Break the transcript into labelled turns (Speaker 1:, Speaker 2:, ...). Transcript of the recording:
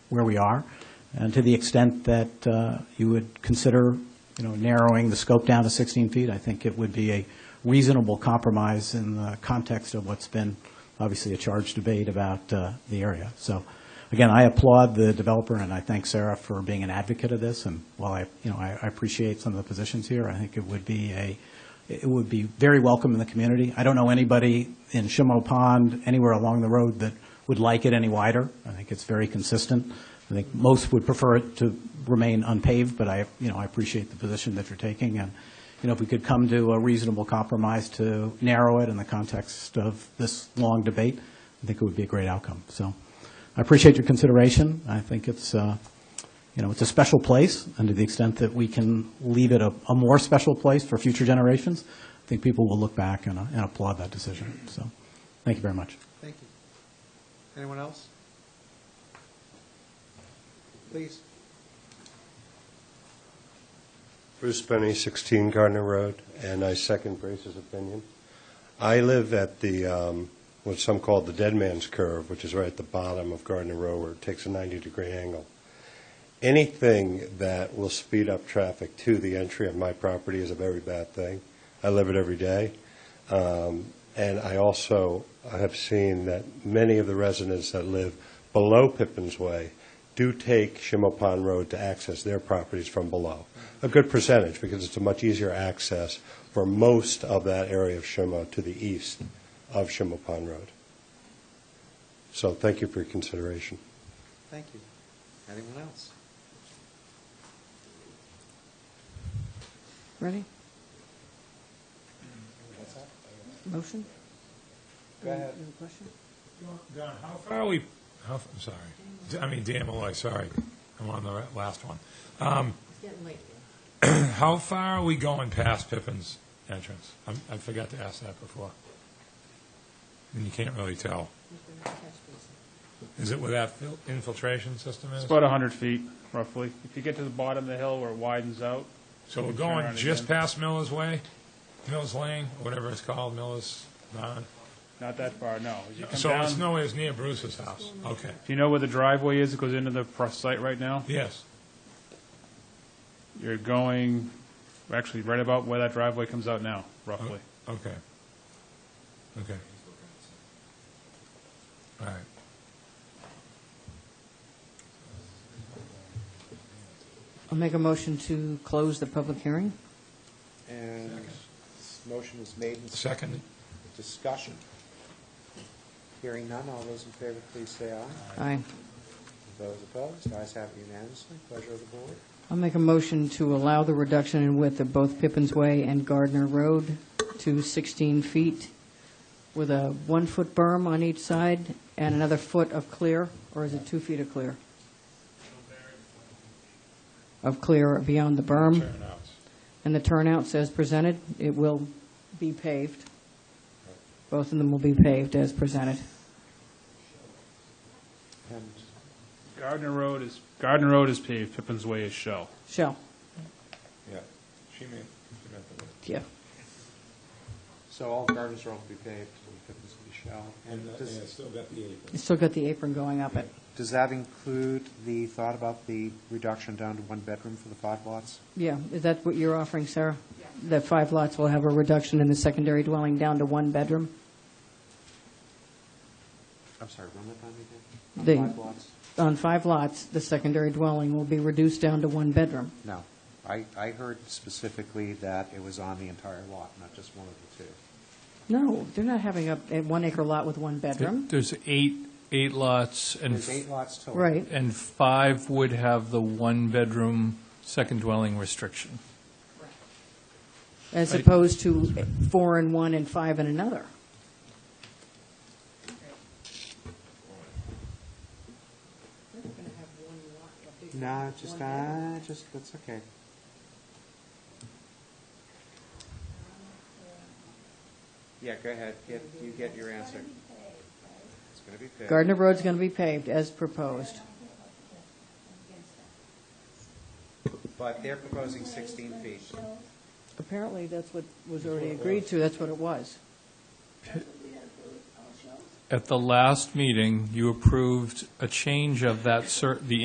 Speaker 1: where we are, and to the extent that uh, you would consider, you know, narrowing the scope down to 16 feet, I think it would be a reasonable compromise in the context of what's been obviously a charged debate about uh, the area. So, again, I applaud the developer, and I thank Sarah for being an advocate of this, and while I, you know, I I appreciate some of the positions here, I think it would be a, it would be very welcome in the community. I don't know anybody in Shimo Pond, anywhere along the road, that would like it any wider. I think it's very consistent. I think most would prefer it to remain unpaved, but I, you know, I appreciate the position that you're taking, and, you know, if we could come to a reasonable compromise to narrow it in the context of this long debate, I think it would be a great outcome. So I appreciate your consideration. I think it's, uh, you know, it's a special place, and to the extent that we can leave it a, a more special place for future generations, I think people will look back and uh, and applaud that decision. So, thank you very much.
Speaker 2: Thank you. Anyone else? Please.
Speaker 3: Bruce Benny, 16 Gardner Road, and I second Grace's opinion. I live at the, um, what some call the Dead Man's Curve, which is right at the bottom of Gardner Road, where it takes a 90-degree angle. Anything that will speed up traffic to the entry of my property is a very bad thing. I live it every day. Um, And I also have seen that many of the residents that live below Pippin's Way do take Shimo Pond Road to access their properties from below. A good percentage, because it's a much easier access for most of that area of Shimo to the east of Shimo Pond Road. So thank you for your consideration.
Speaker 2: Thank you. Anyone else?
Speaker 4: Ready? Motion?
Speaker 2: Go ahead.
Speaker 4: You have a question?
Speaker 5: Don, how far are we, how, f- I'm sorry, D- I mean, Dan Malloy, sorry, I'm on the ra- last one. Um, How far are we going past Pippin's entrance? I'm- I forgot to ask that before. And you can't really tell. Is it where that fil- infiltration system
Speaker 6: It's
Speaker 5: is?
Speaker 6: about 100 feet, roughly. If you get to the bottom of the hill where it widens out,
Speaker 5: So we're
Speaker 6: Turn around
Speaker 5: going just
Speaker 6: again.
Speaker 5: past Miller's Way, Miller's Lane, or whatever it's called, Miller's, Barn.
Speaker 6: not that far, no. As you come
Speaker 5: so it's
Speaker 6: down,
Speaker 5: nowhere as near Bruce's house. Okay,
Speaker 6: if you know where the driveway is, it goes into the pro- site right now.
Speaker 5: yes,
Speaker 6: You're going, actually, right about where that driveway comes out now, roughly.
Speaker 5: okay. Okay. All right.
Speaker 4: I'll make a motion to close the public hearing.
Speaker 2: And this motion was made in
Speaker 5: Second,
Speaker 2: discussion. Hearing none, all those in favor, please say aye.
Speaker 4: Aye.
Speaker 2: Those opposed, ayes have it unanimously. Pleasure of the board.
Speaker 4: I'll make a motion to allow the reduction in width of both Pippin's Way and Gardner Road to 16 feet with a one-foot berm on each side and another foot of clear, or is it two feet of clear? Of clear beyond the berm.
Speaker 5: turnouts.
Speaker 4: And the turnouts as presented, it will be paved. Both of them will be paved as presented.
Speaker 2: And
Speaker 6: Gardner Road is, Gardner Road is paved, Pippin's Way is shell.
Speaker 4: Shell,
Speaker 5: Yeah, she meant, she meant the word.
Speaker 4: yeah.
Speaker 2: so all gardens road will be paved, and Pippin's will be shell. And does,
Speaker 5: uh, still got the apron.
Speaker 4: You still got the apron going up it.
Speaker 2: does that include the thought about the reduction down to one bedroom for the five lots?
Speaker 4: Yeah, is that what you're offering, Sarah? That five lots will have a reduction in the secondary dwelling down to one bedroom?
Speaker 2: I'm sorry, run that by me
Speaker 4: The-
Speaker 2: again? Five lots?
Speaker 4: On five lots, the secondary dwelling will be reduced down to one bedroom.
Speaker 2: No. I, I heard specifically that it was on the entire lot, not just one of the two.
Speaker 4: No, they're not having a, a one acre lot with one bedroom.
Speaker 7: There's eight, eight lots, and,
Speaker 2: There's eight lots total.
Speaker 4: Right,
Speaker 7: and five would have the one-bedroom second dwelling restriction.
Speaker 4: as
Speaker 7: Right.
Speaker 4: opposed to four and one and five and another.
Speaker 2: No, just, uh, just, that's okay. Yeah, go ahead, get, you get your answer. It's gonna be fair.
Speaker 4: Gardner Road's going to be paved as proposed.
Speaker 2: But they're proposing sixteen feet.
Speaker 4: Apparently, that's what was already agreed to, that's what it was.
Speaker 7: At the last meeting, you approved a change of that, cer- the